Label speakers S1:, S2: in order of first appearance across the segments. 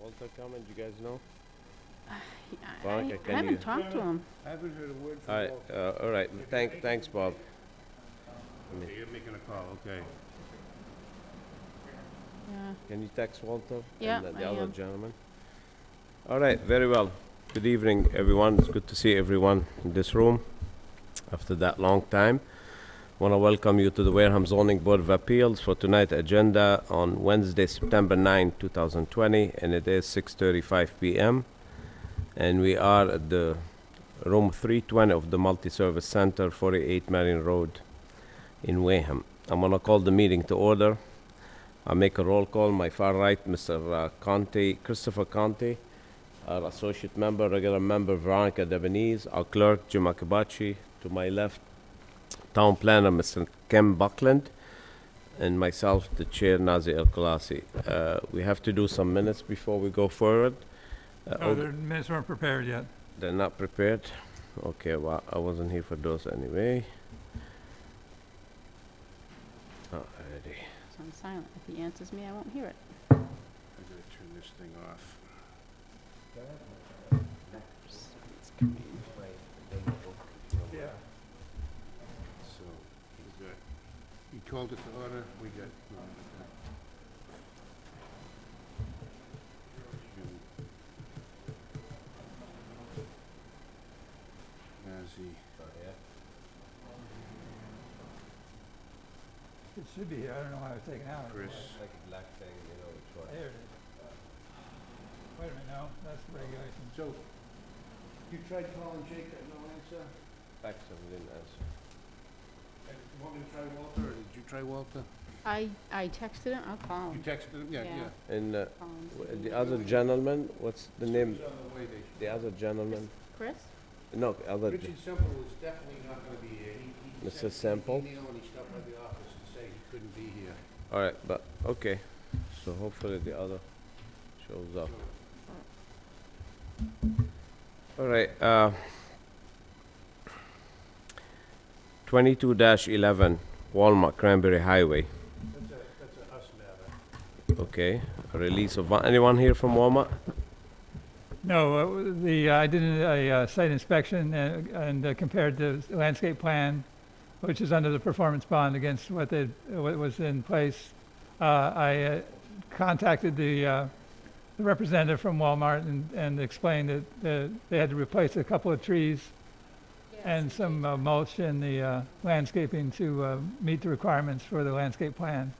S1: Walter Comment, you guys know?
S2: I
S1: Veronica,
S2: I
S1: can you-
S2: haven't talked to him.
S3: I haven't heard a word
S1: All
S3: from
S1: right,
S3: Walt.
S1: uh, all right, thank, thanks, Bob.
S3: Okay, You're making a call, okay.
S2: Yeah.
S1: Can you text Walter?
S2: Yeah,
S1: And the-
S2: I
S1: the other
S2: am.
S1: gentleman? All right, very well. Good evening, everyone. It's good to see everyone in this room after that long time. Want to welcome you to the Wareham Zoning Board of Appeals for tonight's agenda on Wednesday, September 9, 2020, and it is 6:35 PM. And we are at the room 320 of the Multi-Service Center, 48 Marion Road in Wareham. I'm going to call the meeting to order. I make a roll call. My far right, Mr. Conte, Christopher Conte, our associate member, regular member Veronica Devenese, our clerk Jim Akabachi. To my left, town planner Mr. Ken Buckland, and myself, the chair Nazi El Khalasi. Uh, we have to do some minutes before we go forward. Uh,
S4: No, the minutes weren't prepared yet.
S1: they're not prepared? Okay, well, I wasn't here for those anyway. Alrighty.
S2: So I'm silent. If he answers me, I won't hear it.
S3: I gotta turn this thing off.
S2: Someone's coming.
S3: Yeah. So, we got, you called it to order, we got. no, we got- Nazzy,
S4: It should be here, I don't know why it was taken out.
S3: Chris,
S1: Like a black thing, you know, which
S4: There it is. Wait a minute, no, that's the regulations.
S3: so, you tried calling Jake, got no answer?
S1: Fax him, didn't answer.
S3: Uh, You want me to try Walter, or did you try Walter?
S2: I, I texted him. I'll call him.
S3: You texted him, Oh. yeah,
S2: Yeah.
S3: yeah.
S1: And uh,
S2: Call him, see
S1: w-
S2: if
S1: the
S2: he-
S1: other gentleman, what's the
S3: So
S1: name?
S3: he's on the way, they-
S1: The other gentleman,
S2: Chris?
S1: no, other, gen-
S3: Richard Semple is definitely not gonna be here. He- he
S1: Mr.
S3: sent- he
S1: Semple?
S3: emailed and he stopped by the office to say he couldn't be here.
S1: all right, but, okay. So hopefully the other shows up.
S3: So-
S1: All right, uh, twenty-two dash eleven Walmart Cranberry Highway,
S3: That's a, that's a us matter.
S1: okay. A Release of, one- anyone here from Walmart?
S4: No, uh, the, I did a uh, site inspection and- and uh, compared the landscape plan, which is under the performance bond against what they, what was in place. Uh, I uh, contacted the uh, the representative from Walmart and, and explained that- that they had to replace a couple of trees And some uh, mulch in the uh, landscaping to uh, meet the requirements for the landscape plan.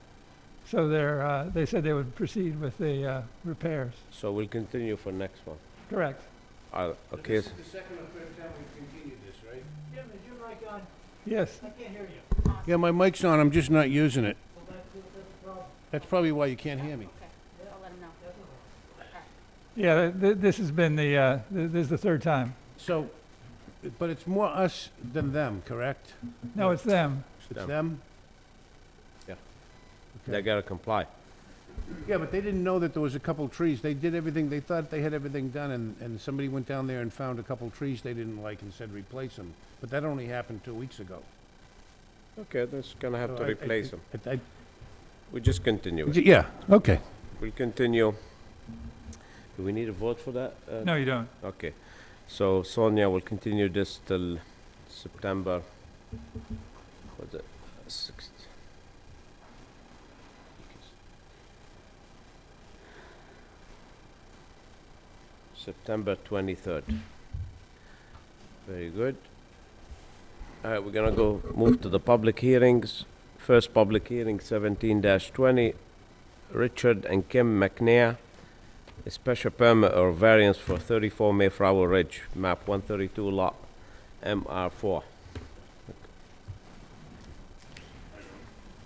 S4: So they're, uh, they said they would proceed with the uh, repairs.
S1: So we'll continue for next one.
S4: Correct.
S1: Uh,
S3: So
S1: okay,
S3: This
S1: s-
S3: is the second or third time we've continued this, right?
S4: Yes,
S3: Yeah, my mic's on, I'm just not using it. That's probably why you can't hear me.
S2: Okay, I'll let him know.
S4: yeah, th- this has been the, uh, th- this is the third time.
S3: So, but it's more us than them, correct?
S4: No, it's them.
S3: It's
S1: Them.
S3: them?
S1: um, they gotta comply.
S3: Yeah, but they didn't know that there was a couple trees. They did everything, they thought they had everything done, and, and somebody went down there and found a couple trees they didn't like and said replace them. But that only happened two weeks ago.
S1: Okay, that's gonna have to
S3: So I- I
S1: replace them.
S3: think- I- I-
S1: We just continue it.
S3: Yeah, okay.
S1: We'll continue. Do we need a vote for that? uh,
S4: No, you don't.
S1: Okay, so Sonia will continue this till September, what's it, sixth? September twenty-third. Very good. All right, we're gonna go, move to the public hearings. First public hearing, seventeen twenty, Richard and Kim McNair, a special permit or variance for 34 Mayflower Ridge, map 132 lot, MR4.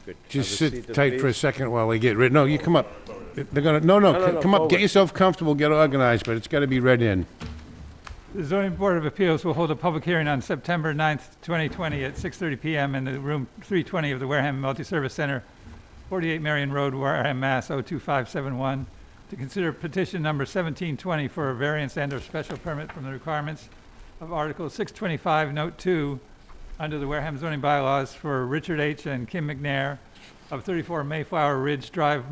S1: Good.
S3: Just
S1: Have a seat,
S3: sit tight for a
S1: please.
S3: second while they get ready. No, you come up. They're gonna, no,
S1: No, no,
S3: no,
S1: no,
S3: c- come up,
S1: forward.
S3: get yourself comfortable, get organized, but it's gotta be read in.
S4: The zoning board of appeals will hold a public hearing on September 9th, 2020 at 6:30 PM in the room 320 of the Wareham Multi-Service Center, 48 Marion Road, Wareham, Mass. 02571, to consider petition number 1720 for a variance and/or special permit from the requirements of Article 625, Note 2, under the Wareham zoning bylaws for Richard H. and Kim McNair of 34 Mayflower Ridge Drive,